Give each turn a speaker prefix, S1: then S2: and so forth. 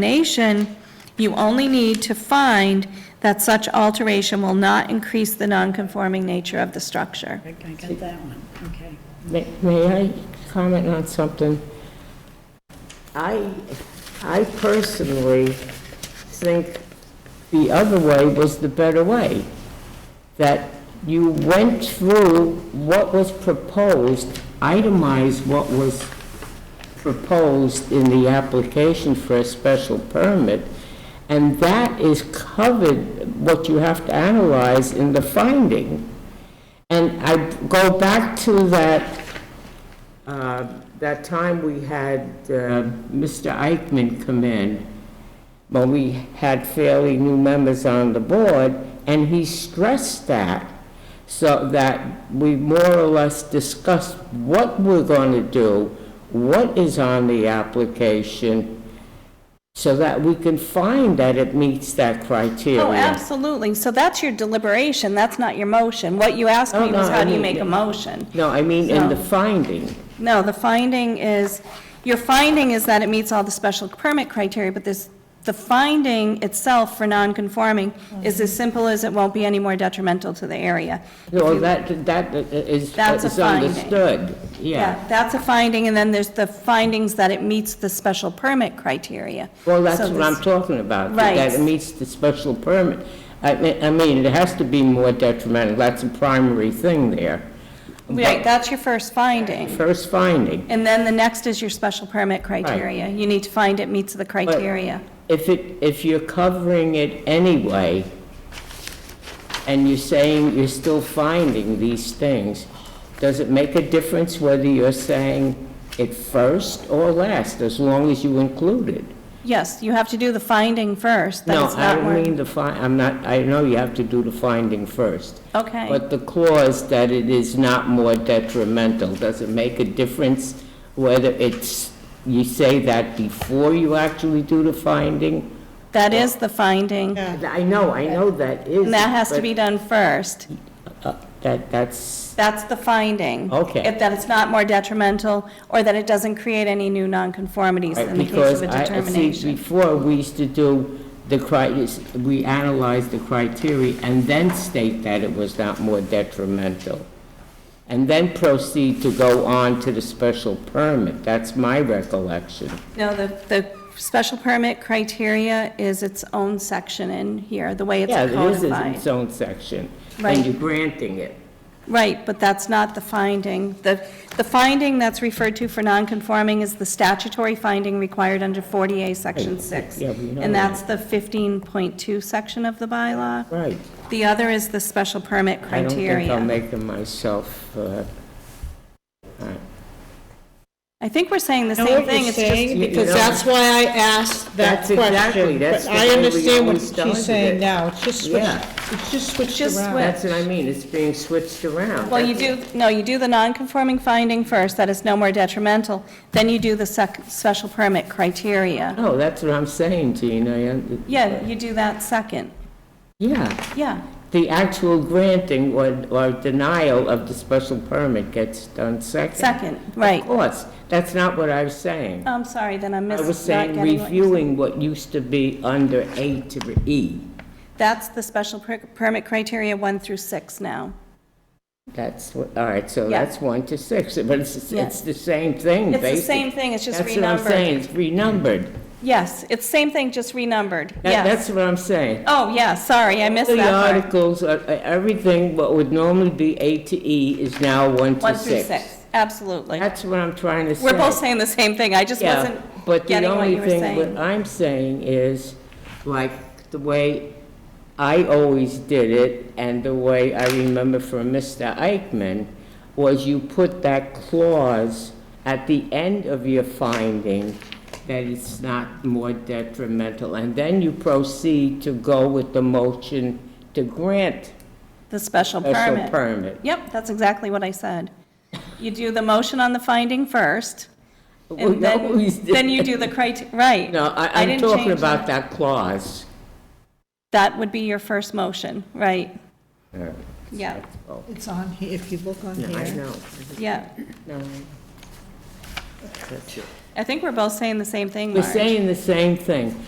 S1: determination, you only need to find that such alteration will not increase the nonconforming nature of the structure.
S2: I got that one, okay.
S3: May may I comment on something? I, I personally think the other way was the better way, that you went through what was proposed, itemized what was proposed in the application for a special permit, and that is covered, what you have to analyze in the finding. And I go back to that, uh, that time we had uh, Mr. Eichman come in, when we had fairly new members on the board, and he stressed that, so that we more or less discussed what we're going to do, what is on the application, so that we can find that it meets that criteria.
S1: Oh, absolutely. So that's your deliberation, that's not your motion. What you asked me
S3: No, no,
S1: was, how
S3: I
S1: do you
S3: mean-
S1: make a motion?
S3: No, I mean, in the
S1: No.
S3: finding.
S1: No, the finding is, your finding is that it meets all the special permit criteria, but this, the finding itself for nonconforming is as simple as it won't be any more detrimental to the area.
S3: No, that, that is
S1: That's a
S3: is
S1: finding.
S3: understood, yeah.
S1: That's a finding, and then there's the findings that it meets the special permit criteria.
S3: Well, that's
S1: So
S3: what I'm
S1: this-
S3: talking about,
S1: Right.
S3: that it meets the special permit. I mean, I mean, it has to be more detrimental, that's a primary thing there.
S1: Right, that's your first
S3: But
S1: finding.
S3: First finding,
S1: And then the next is your special permit criteria. You need to find it meets the criteria.
S3: if it, if you're covering it anyway, and you're saying you're still finding these things, does it make a difference whether you're saying it first or last, as long as you include it?
S1: Yes, you have to do the finding first, that
S3: No,
S1: it's
S3: I
S1: not
S3: don't
S1: more.
S3: mean the fi, I'm not, I know you have to do the finding first.
S1: Okay.
S3: But the clause that it is not more detrimental, does it make a difference whether it's, you say that before you actually do the finding?
S1: That is the finding, and
S3: I know, I know that is.
S1: that has to
S3: but,
S1: be done first.
S3: uh, That, that's,
S1: That's the finding.
S3: Okay.
S1: If that it's not more detrimental, or that it doesn't create any new nonconformities in the case
S3: because
S1: of a
S3: I, I see,
S1: determination.
S3: before, we used to do the cri, we analyzed the criteria and then state that it was not more detrimental. And then proceed to go on to the special permit, that's my recollection.
S1: No, the, the special permit criteria is its own section in here, the way it's
S3: Yeah, it is
S1: codified.
S3: its own section,
S1: Right.
S3: and you're granting it.
S1: Right, but that's not the finding. The, the finding that's referred to for nonconforming is the statutory finding required under 40A, Section 6.
S3: yeah, we know
S1: And that's the 15.2 section of the bylaw.
S3: Right.
S1: The other is the special permit
S3: I don't think I'll
S1: criteria.
S3: make them myself, uh, all right.
S1: I think we're saying the
S2: Know
S1: same
S2: what
S1: thing,
S2: you're
S1: it's just,
S2: saying?
S3: You
S2: Because
S3: know-
S2: that's why I asked that
S3: That's exactly-
S2: question.
S3: that's
S2: But
S3: the
S2: I
S3: way we
S2: understand what
S3: always started
S2: she's saying
S3: it.
S2: now, it's just switched,
S3: Yeah.
S2: it's just switched
S1: Just
S2: around.
S1: switch.
S3: that's what I mean, it's being switched around.
S1: well, you do, no, you do the nonconforming finding first, that is no more detrimental, then you do the sec, special permit criteria.
S3: No, Oh, that's what I'm saying, Gina. and-
S1: Yeah, you do that second,
S3: Yeah,
S1: yeah.
S3: the actual granting or, or denial of the special permit gets done second.
S1: Second, right.
S3: Of course, that's not what I was saying.
S1: I'm sorry, then I'm
S3: I
S1: missing,
S3: was
S1: not
S3: saying
S1: getting what you're saying.
S3: reviewing what used to be under A to E.
S1: That's the special per- permit criteria one through six now.
S3: That's, what- all right, so
S1: Yeah.
S3: that's one to six, but it's,
S1: Yeah.
S3: it's the same thing,
S1: It's
S3: basically.
S1: the same thing, it's just
S3: That's what I'm saying,
S1: renumbered.
S3: it's renumbered.
S1: Yes, it's same thing, just renumbered,
S3: That-
S1: yes.
S3: That's what I'm saying.
S1: Oh, yeah, sorry, I missed
S3: All the
S1: that part.
S3: articles, uh, uh, everything, what would normally be A to E is now one to six.
S1: One through six, absolutely.
S3: That's what I'm trying to say.
S1: We're both saying the same thing, I just
S3: Yeah,
S1: wasn't
S3: but the
S1: getting what
S3: only
S1: you were
S3: thing uh, what
S1: saying.
S3: I'm saying is, like, the way I always did it, and the way I remember from Mr. Eichman, was you put that clause at the end of your finding that it's not more detrimental, and then you proceed to go with the motion to grant
S1: The special
S3: special
S1: permit.
S3: permit.
S1: Yep, that's exactly what I said. You do the motion on the finding first,
S3: We
S1: and then,
S3: always did.
S1: then you do the criteria. right.
S3: No, I, I'm
S1: didn't
S3: talking
S1: change
S3: about that clause.
S1: That would be your first motion, right?
S3: All right.
S1: Yeah,
S3: Oh,
S2: It's on, here. if you look on
S3: no, I
S2: here,
S3: know.
S1: yeah.
S3: No. That's it.
S1: I think we're both saying the same thing,
S3: We're
S1: Marge.
S3: saying the same thing.